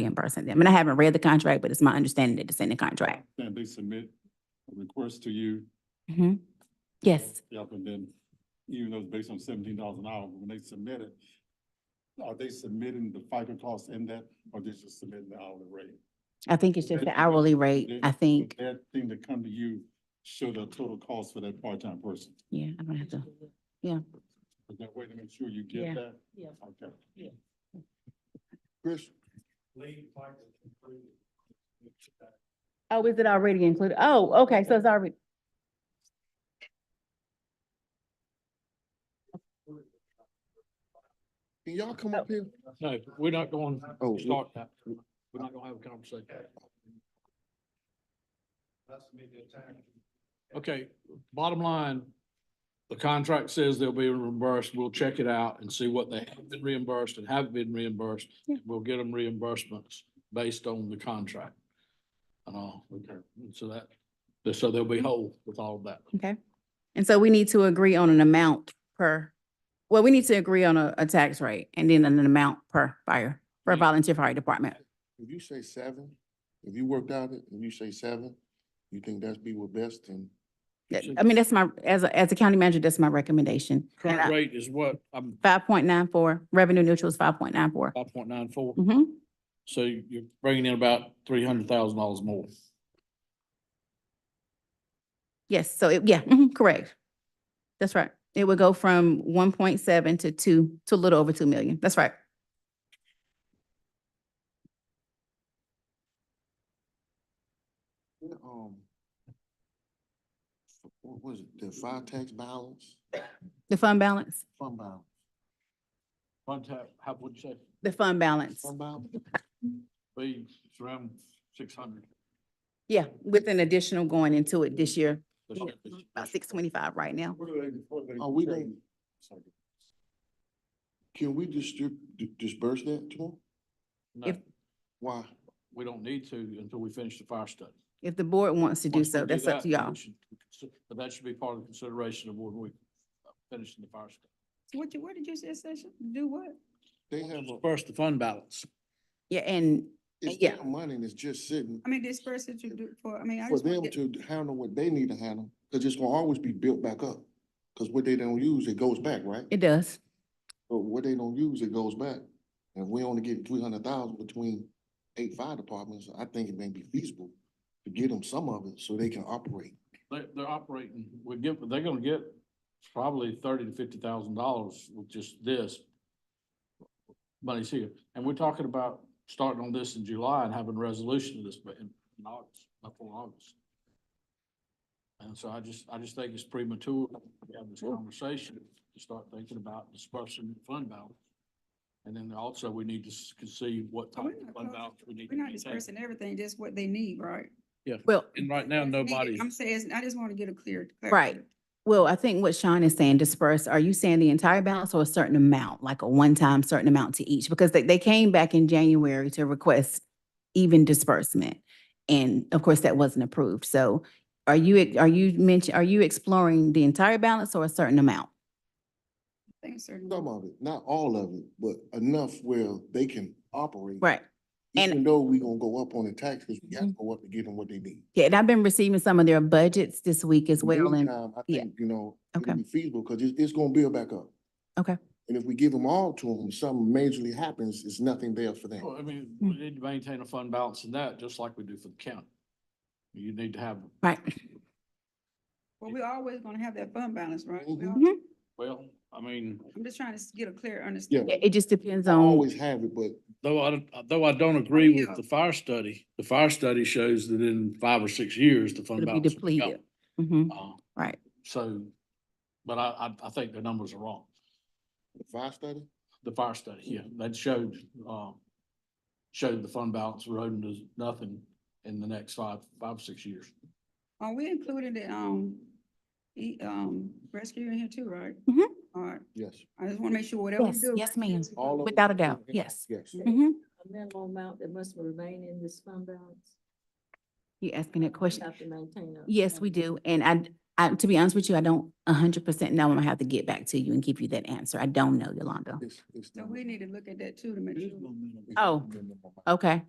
reimbursing them. And I haven't read the contract, but it's my understanding that it's in the contract. Can they submit a request to you? Mhm. Yes, Yep, and then even though it's based on seventeen dollars an hour, when they submit it, are they submitting the FICA costs in that or they just submitting the hourly rate? I think it's just the hourly rate, I Did- think. Did That thing that come to you show the total cost for that part-time person. Yeah, I'm gonna have to, Is that way to make sure you Yeah. get that? Yeah. Okay. Yeah. Chris? oh, is it already included? Oh, okay, so it's already. Can y'all come up here? No, we're not going Oh, to we- start that. We're not gonna have a conversation. Okay, bottom line, the contract says they'll be reimbursed. We'll check it out and see what they have been reimbursed and have been reimbursed. Yeah. We'll get them reimbursements based on the contract. And all, so that, so they'll be whole with all of that. Okay. And so we need to agree on an amount per, well, we need to agree on a, a tax rate and then an amount per fire, for Yeah. volunteer fire department. If you say seven, if you worked out it, and you say seven, you think that's be what best and That- So- I mean, that's my, as a, as a county manager, that's my recommendation. Current rate is what? I'm Five point nine four, revenue neutral is five point nine four. five point nine four. Mm-hmm. So you- you're bringing in about three hundred thousand dollars more. Yes, so it, yeah, mhm, correct. That's right. It would go from one point seven to two, to a little over two million. That's right. Yeah, um. f- What was it, the fire tax balance, The fund balance, fund balance, Fund tap, how, what'd you say? the fund balance. fund balance? Be it's around six hundred. Yeah, with an additional going into it this year, about six twenty-five right now. What are they, what are they? Oh, Are we charging? gonna- Can we distrib- di- disperse that tomorrow? No, Why? we don't need to until we finish the fire study. If the board wants to do Once we so, that's up that, to then y'all. we should consi- But that should be part of the consideration of when we uh, finish the fire study. What you, what did you say, Sasha? Do what? They have a, First, the fund balance. Yeah, and it's Yeah. their money and it's just sitting I mean, this person to do for, I mean, I for just. wanna them get- to handle what they need to handle, cause it's gonna always be built back up. Cause what they don't use, it goes back, right? it does. But what they don't use, it goes back. And if we only get three hundred thousand between eight fire departments, I think it may be feasible to get them some of it so they can operate. They, they're operating, we give, they're gonna get probably thirty to fifty thousand dollars with just this. Money's here, and we're talking about starting on this in July and having resolution of this, but in in August, before August. And so I just, I just think it's premature to have this conversation, to start thinking about dispersing the fund balance. And then also, we need to s- see what type We're of fund not talking- balance we need We're to not maintain. dispersing everything, just what they need, right? Well, And right now, What's needed. nobody's. I'm saying, I just want to get a clear. Right. well, I think what Sean is saying dispersed, are you saying the entire balance or a certain amount, like a one-time certain amount to each? Because they, they came back in January to request even disbursement. And of course, that wasn't approved. So are you, are you mention, are you exploring the entire balance or a certain amount? Thanks, sir. Some of it, not all of it, but enough where they can operate. Right. and- Mm-hmm. Even though we gonna go up on the tax, cause we gotta go up to get them what they need. Yeah, and I've been receiving some of their budgets this week as well. And Meantime, I yeah. think, you know, Okay. it'll be feasible, cause it's, it's gonna build back up. Okay. And if we give them all to them, something majorly happens, it's nothing there for them. Well, I mean, Mm. we need to maintain a fund balance in that, just like we do for the county. You need to have, Right. Well, we're always gonna have that fund balance, right? We Mhm. all- Mm-hmm. well, I mean, I'm just trying to s- get a clear Yeah, understanding. It just depends I on, Always have it, but though I, though I don't agree yeah. with the fire study, the fire study shows that in five or six years, the fund it'll be balance. will be depleted. Mhm, gone. Uh, right. So, but I, I, I think the numbers are wrong. the fire study, The fire study, yeah, that showed, um, showed the fund balance eroding to nothing in the next five, five, six years. Are we including the, um, e, um, rescue in here too, right? Mhm. All right, yes. I just want to make sure whatever we Yes, do. yes, ma'am. All of it. Without a doubt, yes. Yes. Mhm. a minimal amount that must remain in this fund balance? You asking that question? Have to maintain a. Yes, we do. And I, d- I, to be honest with you, I don't a hundred percent know. I'm gonna have to get back to you and give you that answer. I don't know, Yolanda. It's, it's. So we need to look at that too to make sure. Oh. Okay.